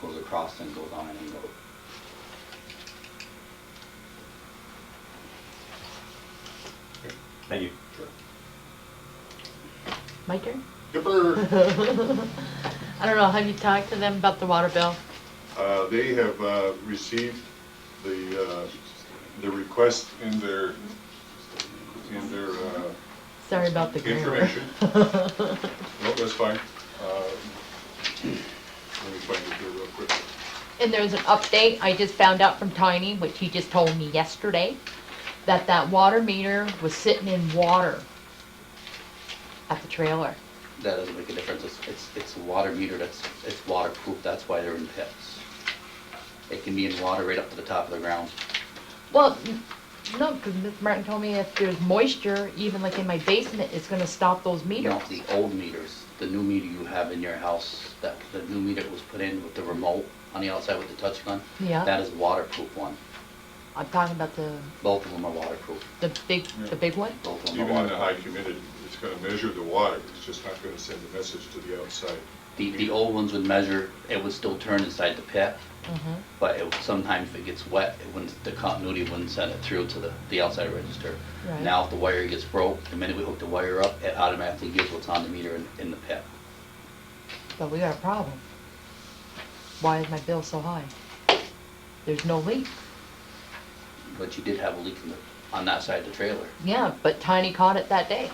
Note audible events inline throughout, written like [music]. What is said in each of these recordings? goes across and goes on an angle. Thank you. My turn? Dipper, I don't know, have you talked to them about the water bill? uh, they have, uh, received the, uh, the request in their, in their, uh, Sorry about the grammar. information. No, that's fine. Uh, Let me find it here real quick. [laughs] And there's an update, I just found out from Tiny, which he just told me yesterday, that that water meter was sitting in water at the trailer. That doesn't make a difference, it's, it's, it's a water meter, that's, it's waterproof, that's why they're in pits. It can be in water right up to the top of the ground. Well, n- no, because Ms. Martin told me if there's moisture, even like in my basement, it's gonna stop those You know, meters. the old meters, the new meter you have in your house, that, the new meter that was put in with the remote on the outside with the touch gun. Yeah. That is waterproof one, I'm talking about the, both of them are waterproof, the big, the big one? both of them are Even in the waterproof. high humidity, it's gonna measure the water, it's just not gonna send a message to the outside. The, the old ones would measure, it would still turn inside the pit, Mhm. but it, sometimes if it gets wet, it wouldn't, the continuity wouldn't send it through to the, the outside register. Right. Now, if the wire gets broke, the minute we hook the wire up, it automatically gives what's on the meter in, in the pit. But we got a problem. Why is my bill so high? There's no leak. But you did have a leak in the, on that side of the trailer. Yeah, but Tiny caught it that day.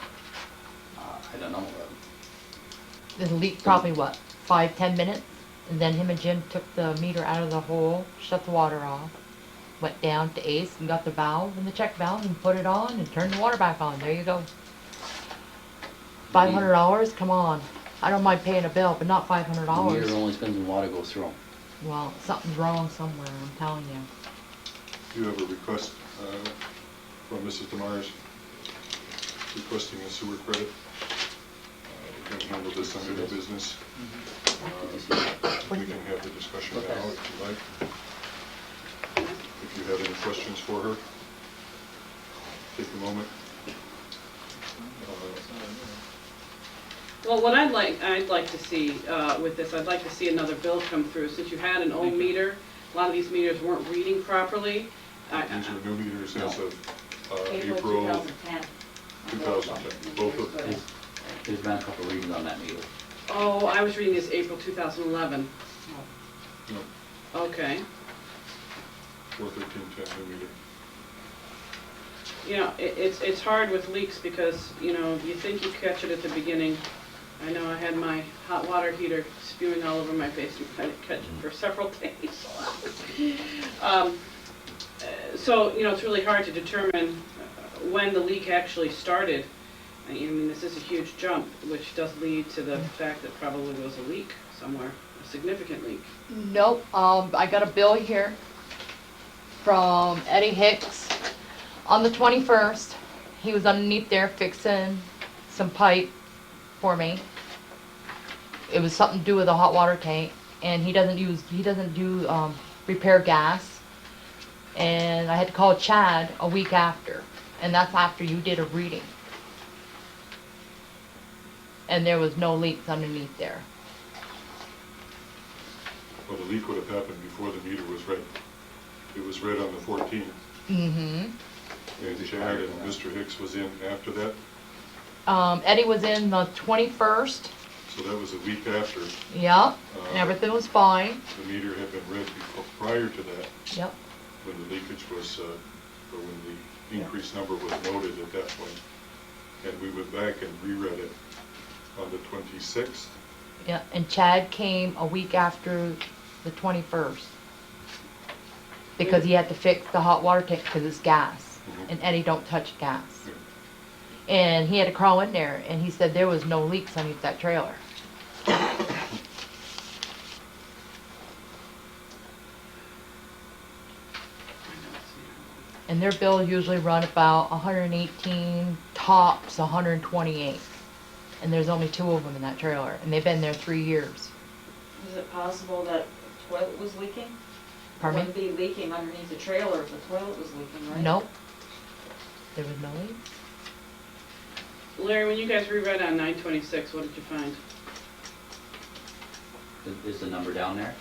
Uh, I don't know, uh, The leak probably what, five, ten minutes? And then him and Jim took the meter out of the hole, shut the water off, went down to Ace and got the valve and the check valve and put it on and turned the water back on. There you go. Five hundred dollars? Come on. I don't mind paying a bill, but not five hundred the meter dollars. only spins when water goes through 'em. Well, something's wrong somewhere, I'm telling you. Do you have a request uh, from Mrs. Demers requesting a sewer credit? Uh, We can handle this under the business. Did you see that? We can have the discussion now if you like. If you have any questions for her, take a moment. Uh, Well, what I'd like, I'd like to see uh, with this, I'd like to see another bill come through, since you had an old meter, a lot of these meters weren't reading properly. I- These are I- new meters as of uh, April April 2010. 2010, both of them. There's- There's been a couple readings on that meter. Oh, I was reading this April 2011. no, Okay. 41310 new meter. You know, it- it's, it's hard with leaks because, you know, you think you catch it at the beginning. I know I had my hot water heater spewing all over my face and I didn't catch it for [laughs] several days. Um, uh, So, you know, it's really hard to determine uh, when the leak actually started. I mean, this is a huge jump, which does lead to the fact that probably there was a leak somewhere, a significant leak. Nope, um, I got a bill here from Eddie Hicks on the twenty-first. He was underneath there fixing some pipe for me. It was something to do with a hot water tank, and he doesn't use, he doesn't do, um, repair gas. And I had to call Chad a week after, and that's after you did a reading. And there was no leaks underneath there. Well, the leak would have happened before the meter was read. It was read on the 14th, Mm-hmm. and Chad and Mr. Hicks was in after that, Um, Eddie was in the twenty-first, so that was a week after. yep, and everything was fine, The meter had been read before, prior to that, yep. when the leakage was, uh, or when the increased number was noted at that point. And we went back and reread it on the 26th. Yeah, and Chad came a week after the twenty-first. Because he had to fix the hot water tank, cause it's gas, Mhm. and Eddie don't touch gas. Yeah. And he had to crawl in there, and he said there was no leaks underneath that trailer. And their bills usually run about hundred and eighteen, tops hundred and twenty-eight. And there's only two of them in that trailer, and they've been there three years. Is it possible that toilet was leaking? Pardon me? Wouldn't be leaking underneath the trailer if the toilet was leaking, right? Nope. There was no leak. Larry, when you guys reread on 926, what did you find? Is- Is the number down there?